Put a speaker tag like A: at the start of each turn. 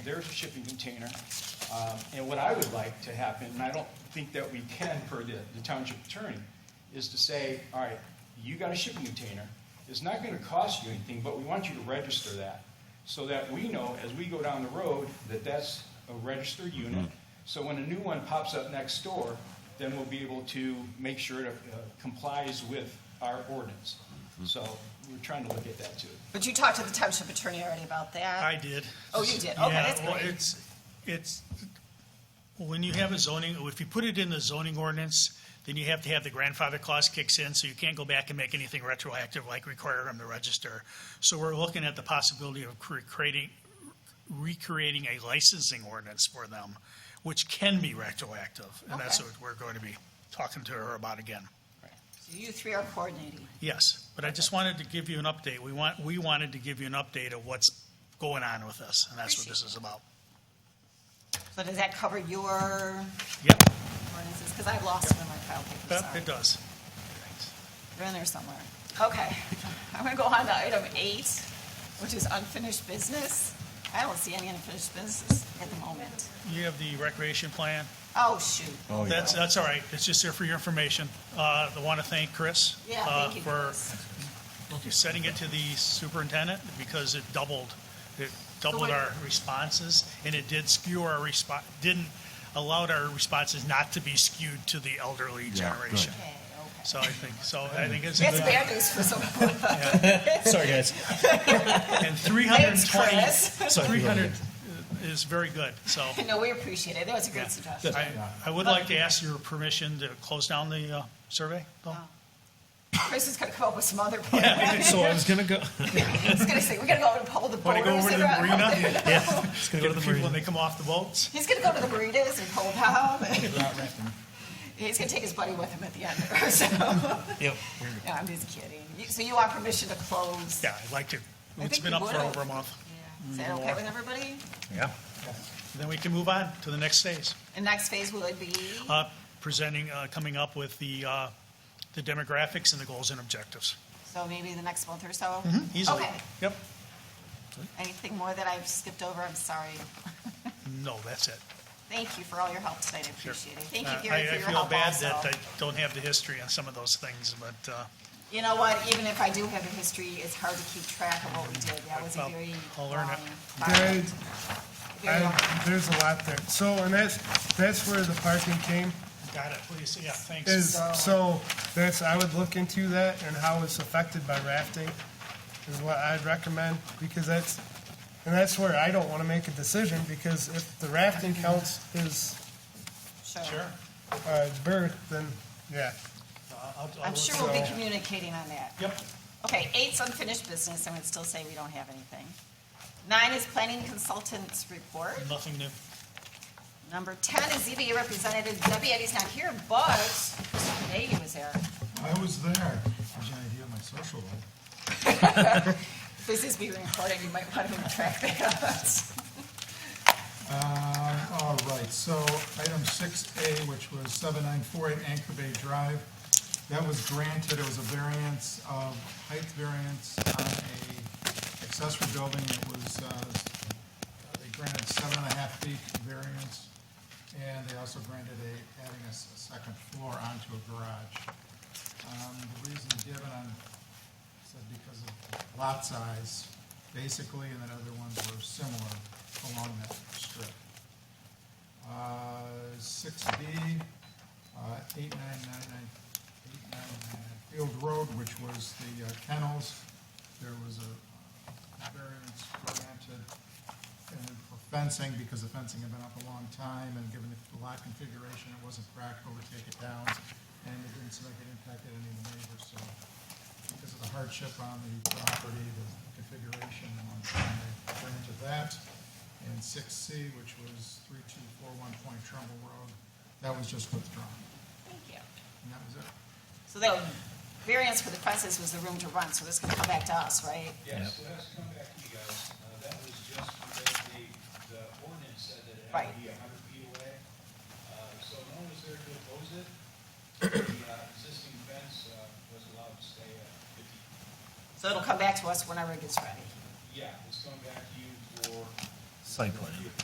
A: There's a shipping container, um, and what I would like to happen, and I don't think that we can per the the township attorney, is to say, all right, you got a shipping container, it's not gonna cost you anything, but we want you to register that, so that we know, as we go down the road, that that's a registered unit, so when a new one pops up next door, then we'll be able to make sure it uh, complies with our ordinance. So, we're trying to look at that too.
B: But you talked to the township attorney already about that?
C: I did.
B: Oh, you did? Okay,
C: Yeah,
B: that's
C: well,
B: great.
C: It's, it's, when you have a zoning, if you put it in the zoning ordinance, then you have to have the grandfather clause kicks in, so you can't go back and make anything retroactive like require them to register. So we're looking at the possibility of cre- creating, recreating a licensing ordinance for them, which can be retroactive. And that's
B: Okay.
C: what we're going to be talking to her about again.
B: So You three are coordinating.
C: Yes, but I just wanted to give you an update. We want, we wanted to give you an update of what's going on with us, and that's what this is about.
B: So does that cover your
C: Yep,
B: ordinances? Because I've lost them in my pile of papers,
C: yep,
B: sorry.
C: it does.
B: They're in there somewhere. Okay. I'm going to go on to item eight, which is unfinished business. I don't see any unfinished business at the moment.
C: You have the recreation plan?
B: Oh, shoot.
D: Oh, yeah.
C: That's, that's all right. It's just there for your information. Uh, I want to thank Chris.
B: Yeah,
C: uh,
B: thank you.
C: For
B: Chris.
C: setting it to the superintendent because it doubled, it doubled
B: what-
C: our responses and it did skew our response, didn't, allowed our responses not to be skewed to the elderly generation.
B: Okay, okay.
C: So I think, so I think it's. a
B: That's
C: good-
B: bad news for some of us.
E: Sorry, guys.
C: And 320,
B: Thanks, Chris.
C: 300 is very good, so.
B: No, we appreciate it. That was a great suggestion.
C: I, I would like to ask your permission to close down the uh, survey, though.
B: Oh. Chris is going to come up with some other plan.
E: So I was gonna go.
B: He's going to say, we're going to go and pull the
C: Want to go
B: borders
C: over to the
B: around."
C: marina?
E: Yeah, it's gonna
C: Get the
E: go to
C: people
E: the
C: when
E: marina.
C: they come off the boats?
B: He's gonna go to the burritos and pull down. He's gonna take his buddy with him at the end, so, no,
E: Yep.
B: I'm just kidding. You- So you want permission to close?
C: Yeah, I'd like to.
B: I
C: It's
B: think
C: been
B: we
C: up for
B: would.
C: over a month.
B: Yeah. Is that okay with everybody?
E: Yeah.
C: Then we can move on to the next phase.
B: And next phase would be,
C: Uh, Presenting, uh, coming up with the, uh, the demographics and the goals and objectives.
B: so maybe the next month or so?
C: mm-hmm, Easily.
B: Okay,
C: Yep.
B: anything more that I've skipped over, I'm sorry.
C: No, that's it.
B: Thank you for all your help tonight, I appreciate it. Thank
C: Uh,
B: you, Gary,
C: I-
B: for your help
C: I feel bad
B: also.
C: that uh, I don't have the history on some of those things, but uh,
B: You know what, even if I do have a history, it's hard to keep track of what we did. That was a
C: Well,
B: very
C: I'll
B: long.
C: learn it.
B: file.
F: There's-
B: Very long
F: I- Um, There's a lot there. So, and that's, that's where the parking came,
C: got it, please. Yeah, thanks.
F: is, so, that's, I would look into that and how it's affected by rafting is what I'd recommend, because that's, and that's where I don't wanna make a decision, because if the rafting counts as,
B: show.
C: Sure.
F: uh, birth, then, yeah.
C: I'll- Uh, I'll- I'll
B: I'm
C: look
B: sure
C: it
B: we'll be
C: up.
B: communicating on that.
C: Yep.
B: Okay, eight's unfinished business, and we'd still say we don't have anything. Nine is planning consultants report.
C: Nothing new.
B: Number ten is ZBA representative Debbie Eddie's not here, but Mr. Nagy was there.
G: I was there. Gives you an idea of my social life.
B: If This is being recorded, you might want to track that up.
G: Um, All right, so item six A, which was seven nine four eight Anchor Bay Drive, that was granted, it was a variance of, height variance on a accessory building. It was, uh, they granted seven and a half feet variance, and they also granted a, adding a s- a second floor onto a garage. Um, The reason given on said because of lot size, basically, and then other ones were similar along that strip. Uh, Six B, uh, eight nine nine nine, eight nine nine nine Field Road, which was the uh, kennels, there was a variance granted and for fencing, because the fencing had been up a long time, and given the lot configuration, it wasn't practical to take it down, and it didn't seem like it impacted any of the neighbors, so because of the hardship on the property, the configuration, and they granted that. And six C, which was three two four one Point Trumbull Road, that was just withdrawn,
B: Thank you.
G: and that was it.
B: So the variance for the fences was the room to run, so this can come back to us, right?
A: Yes, so that's come back to you guys. Uh, That was just because the, the ordinance said that it had to
B: Right.
A: be a hundred feet away. Uh, So no one was there to oppose it. The uh, existing fence uh, was allowed to stay at fifty.
B: So it'll come back to us whenever it gets ready.
A: Yeah, it's coming back to you for.
H: Site plan.